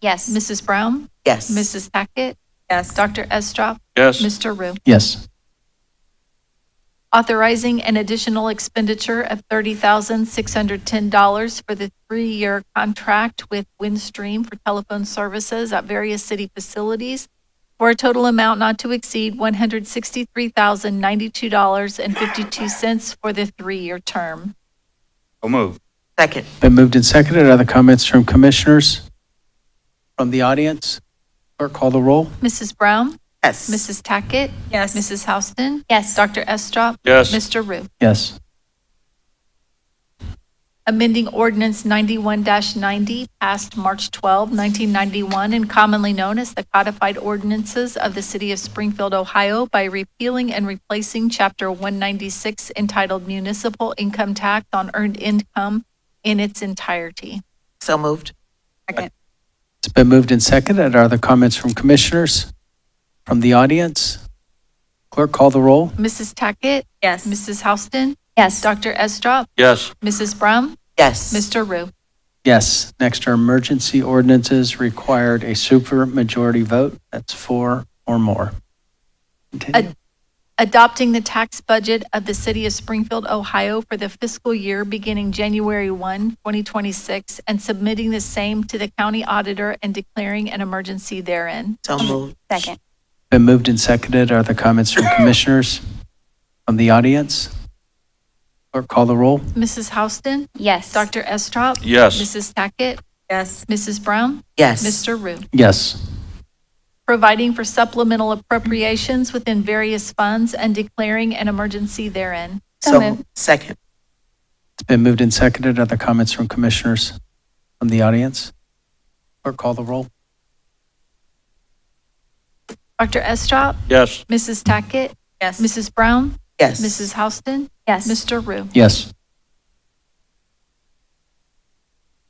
Yes. Mrs. Brown? Yes. Mrs. Hackett? Yes. Dr. Estrop? Yes. Mr. Rue? Yes. Authorizing an additional expenditure of $30,610 for the three-year contract with Windstream for telephone services at various city facilities for a total amount not to exceed $163,092.52 for the three-year term. So moved. Second. Been moved and seconded. Other comments from commissioners? From the audience? Clerk, call the roll. Mrs. Brown? Yes. Mrs. Tackett? Yes. Mrs. Houston? Yes. Dr. Estrop? Yes. Mr. Rue? Yes. amending ordinance 91-90 passed March 12, 1991, and commonly known as the codified ordinances of the city of Springfield, Ohio by repealing and replacing Chapter 196 entitled Municipal Income Tax on Earned Income in its entirety. So moved. Second. It's been moved and seconded. Are there comments from commissioners? From the audience? Clerk, call the roll. Mrs. Tackett, Yes. Mrs. Houston, Yes. Dr. Estrop, Yes. Mrs. Brown, Yes. Mr. Rue. Yes. Next are emergency ordinances required a supermajority vote. That's four or more. Continue. adopting the tax budget of the city of Springfield, Ohio for the fiscal year beginning January 1, 2026, and submitting the same to the county auditor and declaring an emergency therein. So moved. Second. Been moved and seconded. Are there comments from commissioners? From the audience? Clerk, call the roll. Mrs. Houston? Yes. Dr. Estrop? Yes. Mrs. Tackett? Yes. Mrs. Brown? Yes. Mr. Rue? Yes. Providing for supplemental appropriations within various funds and declaring an emergency therein. So moved. Second. It's been moved and seconded. Are there comments from commissioners from the audience? Clerk, call the roll. Dr. Estrop? Yes. Mrs. Tackett? Yes. Mrs. Brown? Yes. Mrs. Houston? Yes. Mr. Rue? Yes.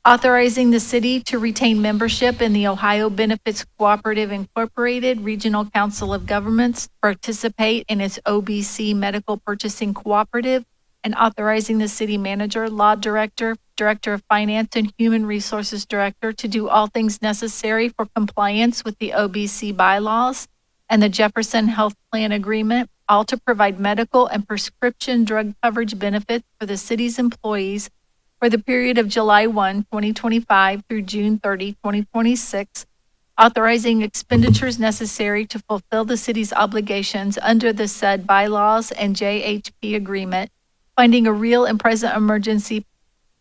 authorizing the city to retain membership in the Ohio Benefits Cooperative Incorporated Regional Council of Governments, participate in its OBC Medical Purchasing Cooperative, and authorizing the city manager, law director, director of finance, and human resources director to do all things necessary for compliance with the OBC bylaws and the Jefferson Health Plan Agreement, all to provide medical and prescription drug coverage benefits for the city's employees for the period of July 1, 2025 through June 30, 2026, authorizing expenditures necessary to fulfill the city's obligations under the said bylaws and JHP agreement, finding a real and present emergency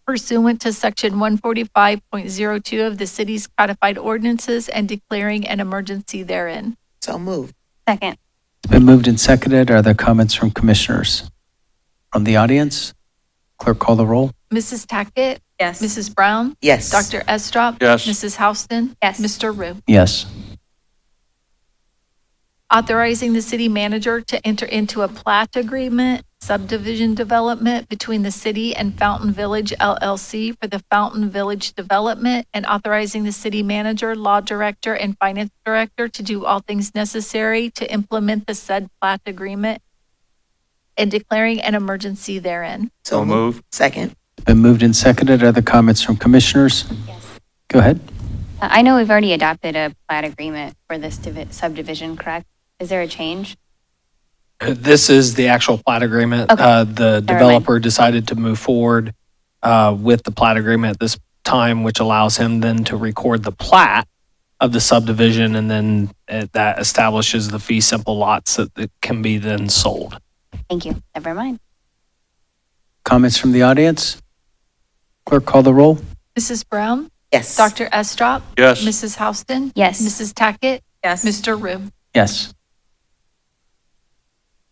pursuant to Section 145.02 of the city's codified ordinances and declaring an emergency therein. So moved. Second. It's been moved and seconded. Are there comments from commissioners? From the audience? Clerk, call the roll. Mrs. Tackett, Yes. Mrs. Brown, Yes. Dr. Estrop, Yes. Mrs. Houston, Yes. Mr. Rue. Yes. authorizing the city manager to enter into a plat agreement subdivision development between the city and Fountain Village LLC for the Fountain Village development and authorizing the city manager, law director, and finance director to do all things necessary to implement the said plat agreement and declaring an emergency therein. So moved. Second. It's been moved and seconded. Are there comments from commissioners? Go ahead. Uh, I know we've already adopted a plat agreement for this divi- subdivision, correct? Is there a change? This is the actual plat agreement. Okay. Uh, The mind. developer decided to move forward uh, with the plat agreement at this time, which allows him then to record the plat of the subdivision, and then uh, that establishes the fee simple lots that that can be then sold. Thank you. Never mind. Comments from the audience? Clerk, call the roll. Mrs. Brown, Yes. Dr. Estrop, Yes. Mrs. Houston, Yes. Mrs. Tackett, Yes. Mr. Rue. Yes.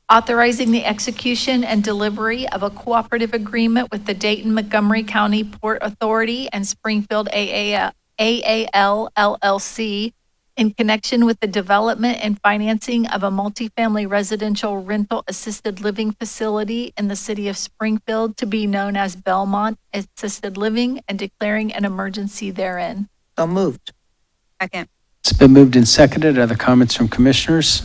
authorizing the execution and delivery of a cooperative agreement with the Dayton Montgomery County Port Authority and Springfield AAL AAL LLC in connection with the development and financing of a multifamily residential rental assisted living facility in the city of Springfield to be known as Belmont Assisted Living and declaring an emergency therein. So moved. Second. It's been moved and seconded. Other comments from commissioners?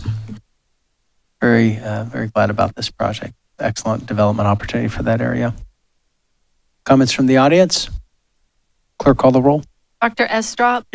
Very, uh, very glad about this project. Excellent development opportunity for that area. Comments from the audience? Clerk, call the roll. Dr. Estrop?